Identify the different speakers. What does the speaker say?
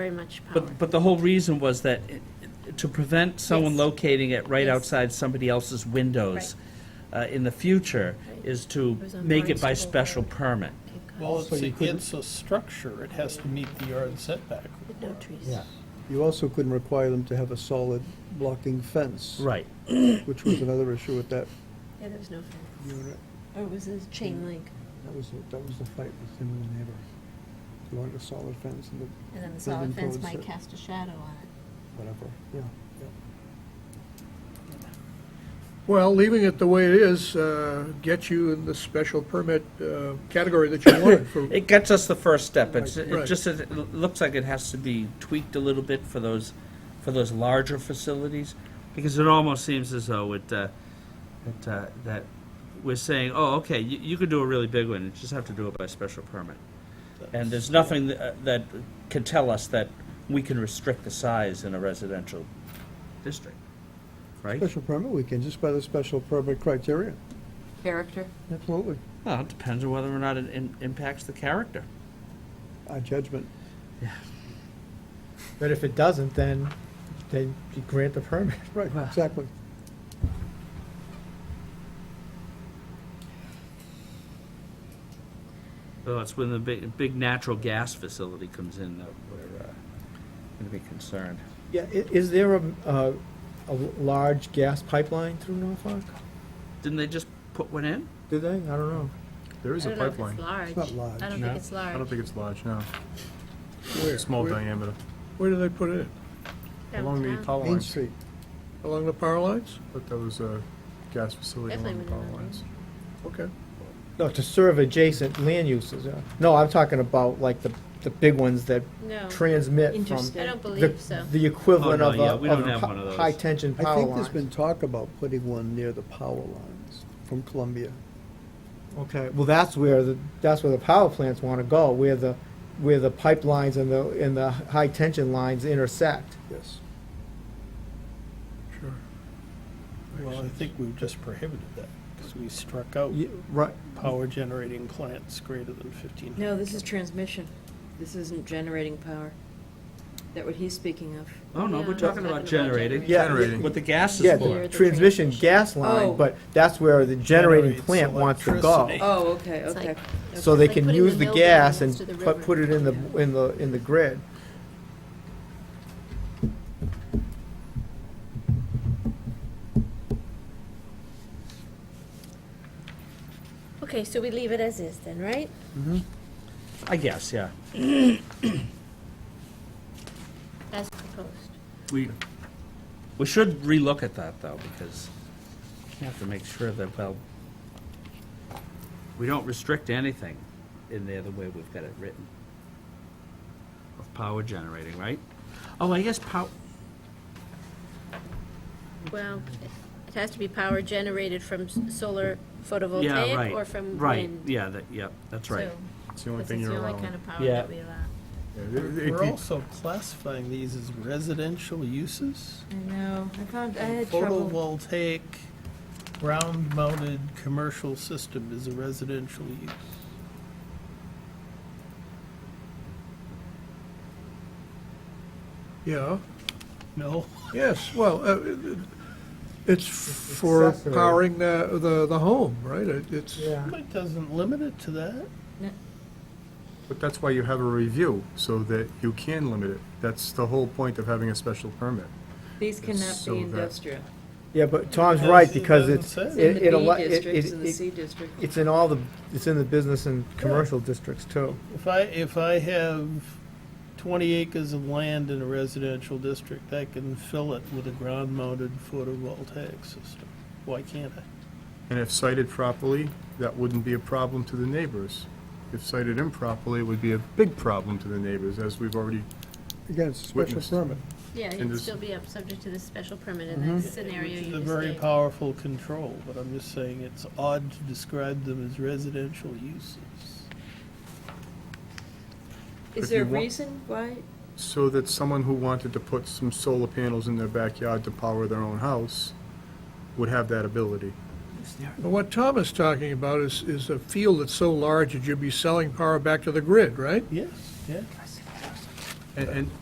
Speaker 1: very much power.
Speaker 2: But, but the whole reason was that it- it- to prevent someone
Speaker 1: Yes.
Speaker 2: locating it right
Speaker 1: Yes.
Speaker 2: outside somebody else's windows uh, in the future
Speaker 1: Right.
Speaker 2: is to
Speaker 1: It was on
Speaker 2: make it by
Speaker 1: Barnstable
Speaker 2: special
Speaker 1: Road.
Speaker 2: permit.
Speaker 3: Well,
Speaker 4: So
Speaker 3: it's,
Speaker 4: you
Speaker 3: a-
Speaker 4: couldn't-
Speaker 3: it's a structure, it has to meet the yard setback.
Speaker 1: With no trees.
Speaker 4: Yeah. You also couldn't require them to have a solid blocking fence.
Speaker 2: Right.
Speaker 4: Which was another issue with that
Speaker 1: Yeah, there was no fence.
Speaker 4: unit.
Speaker 1: Or it was a chain link,
Speaker 4: That was, the- that was the fight with him and the neighbor. He wanted a solid fence and the-
Speaker 1: and then the
Speaker 4: Building
Speaker 1: solid fence
Speaker 4: codes
Speaker 1: might
Speaker 4: that-
Speaker 1: cast a shadow on it.
Speaker 4: whatever, yeah, yeah.
Speaker 5: Well, leaving it the way it is uh, gets you in the special permit uh, category that you wanted for,
Speaker 2: It gets us the first step. It's, it
Speaker 5: Right.
Speaker 2: just, it l- looks like it has to be tweaked a little bit for those, for those larger facilities, because it almost seems as though it, uh, it, uh, that we're saying, oh, okay, you, you could do a really big one, you just have to do it by special permit. And there's nothing tha- that can tell us that we can restrict the size in a residential district, right?
Speaker 4: Special permit weekend, just by the special permit criteria,
Speaker 6: Character?
Speaker 4: absolutely,
Speaker 2: Well, it depends on whether or not it im- impacts the character.
Speaker 4: our judgment.
Speaker 7: But if it doesn't, then they you grant the permit.
Speaker 4: Right, exactly.
Speaker 2: Well, that's when the big, big natural gas facility comes in that we're, uh, gonna be concerned.
Speaker 7: Yeah, i- is there a, a, a large gas pipeline through Norfolk?
Speaker 2: Didn't they just put one in?
Speaker 7: Do they? I don't know.
Speaker 8: There is a pipeline.
Speaker 1: I don't know if it's large.
Speaker 4: It's not large.
Speaker 1: I don't think it's large.
Speaker 8: I don't think it's large, no.
Speaker 5: where?
Speaker 8: Small
Speaker 5: Where-
Speaker 8: diameter.
Speaker 5: Where do they put it? in?
Speaker 8: Along the
Speaker 1: Downtown.
Speaker 8: power
Speaker 4: Main
Speaker 8: lines.
Speaker 4: Street,
Speaker 5: Along the power lines?
Speaker 8: But there was a uh, gas facility along
Speaker 1: Definitely
Speaker 8: the power
Speaker 1: wouldn't know.
Speaker 8: lines.
Speaker 5: Okay.
Speaker 7: No, to serve adjacent land uses. uh, No, I'm talking about like the, the big ones that
Speaker 1: No,
Speaker 7: transmit from
Speaker 6: Interstate.
Speaker 1: I don't
Speaker 7: the-
Speaker 1: believe so.
Speaker 7: The equivalent
Speaker 2: Oh, no,
Speaker 7: of
Speaker 2: yeah, we
Speaker 7: a,
Speaker 2: don't have one
Speaker 7: of
Speaker 2: of
Speaker 7: a
Speaker 2: those.
Speaker 7: high tension
Speaker 4: I
Speaker 7: power
Speaker 4: think there's been
Speaker 7: lines.
Speaker 4: talk about putting one near the power lines from Columbia.
Speaker 7: Okay, well, that's where the, that's where the power plants want to go, where the, where the pipelines and the, and the high tension lines intersect.
Speaker 4: Yes.
Speaker 5: Sure.
Speaker 3: Well, I think we've just prohibited that, because we struck out
Speaker 7: Ye- Right,
Speaker 3: power generating plants greater than fifteen hundred.
Speaker 6: No, this is transmission. This isn't generating power. That what he's speaking of.
Speaker 2: Oh, no,
Speaker 1: Yeah,
Speaker 2: we're
Speaker 1: I'm
Speaker 2: talking about generating.
Speaker 7: Yeah.
Speaker 8: Generating.
Speaker 2: What the gas
Speaker 7: Yeah,
Speaker 2: is
Speaker 7: the
Speaker 2: for.
Speaker 1: the
Speaker 7: transmission
Speaker 1: transmission.
Speaker 7: gas
Speaker 6: Oh.
Speaker 7: line, but that's where the generating
Speaker 3: Generates
Speaker 7: plant wants to go.
Speaker 3: electricity.
Speaker 6: Oh, okay,
Speaker 1: It's like-
Speaker 6: okay.
Speaker 7: So they
Speaker 1: It's like
Speaker 7: can
Speaker 1: putting
Speaker 7: use the
Speaker 1: mill
Speaker 7: gas
Speaker 1: down
Speaker 7: and
Speaker 1: next to the
Speaker 7: put,
Speaker 1: river.
Speaker 7: put it in the, in the, in the grid.
Speaker 1: Okay, so we leave it as is then, right?
Speaker 2: I guess, yeah.
Speaker 1: As proposed.
Speaker 2: We, we should relook at that, though, because we have to make sure that, well, we don't restrict anything in there the way we've got it written. Of power generating, right? Oh, I guess pow,
Speaker 1: Well, it has to be power generated from s- solar
Speaker 2: yeah, right.
Speaker 1: photovoltaic or from
Speaker 2: Right,
Speaker 1: wind.
Speaker 2: yeah, that, yeah, that's right.
Speaker 1: So,
Speaker 8: It's the only
Speaker 1: This
Speaker 8: thing
Speaker 1: is
Speaker 8: you're
Speaker 1: the
Speaker 8: allowing.
Speaker 1: only kind of power
Speaker 2: Yeah.
Speaker 1: that we allow.
Speaker 8: Yeah, it- it-
Speaker 3: We're
Speaker 8: it-
Speaker 3: also classifying these as residential uses?
Speaker 6: I know, I found, I had trouble.
Speaker 3: Photovoltaic, ground mounted commercial system is a residential use.
Speaker 5: Yeah,
Speaker 3: No?
Speaker 5: yes, well, uh, it- it- it's for
Speaker 7: accessory.
Speaker 5: powering the, the, the home, right? It- It's,
Speaker 3: It doesn't limit it to that.
Speaker 8: But that's why you have a review, so that you can limit it. That's the whole point of having a special permit.
Speaker 6: These cannot
Speaker 8: So
Speaker 6: be
Speaker 8: that-
Speaker 6: industrial.
Speaker 7: Yeah, but Tom's
Speaker 3: Because
Speaker 7: right,
Speaker 3: it
Speaker 7: because
Speaker 3: doesn't
Speaker 7: it's,
Speaker 3: say. It's
Speaker 6: It's in
Speaker 7: it,
Speaker 6: the
Speaker 7: it, allo-
Speaker 6: B
Speaker 7: it,
Speaker 6: district, it's in
Speaker 7: it,
Speaker 6: the
Speaker 7: it-
Speaker 6: C district.
Speaker 7: it's in all the, it's in the business and commercial districts too.
Speaker 3: If I, if I have twenty acres of land in a residential district, I can fill it with a ground-mounted photovoltaic system. Why can't I?
Speaker 8: And if cited properly, that wouldn't be a problem to the neighbors. If cited improperly, it would be a big problem to the neighbors, as we've already,
Speaker 4: Again, it's a special
Speaker 8: Witnessed.
Speaker 4: permit.
Speaker 1: Yeah,
Speaker 8: And
Speaker 1: it'd
Speaker 8: this-
Speaker 1: still be up, subject to the special permit in
Speaker 2: Mm-hmm.
Speaker 1: that scenario
Speaker 3: Which
Speaker 1: you
Speaker 3: is
Speaker 1: just
Speaker 3: a
Speaker 1: gave.
Speaker 3: very powerful control, but I'm just saying it's odd to describe them as residential uses.
Speaker 6: Is
Speaker 8: if
Speaker 6: there a
Speaker 8: you want-
Speaker 6: reason why?
Speaker 8: so that someone who wanted to put some solar panels in their backyard to power their own house would have that ability.
Speaker 5: But what Tom is talking about is, is a field that's so large that you'd be selling power back to the grid, right?
Speaker 3: Yes, yeah.
Speaker 8: And, and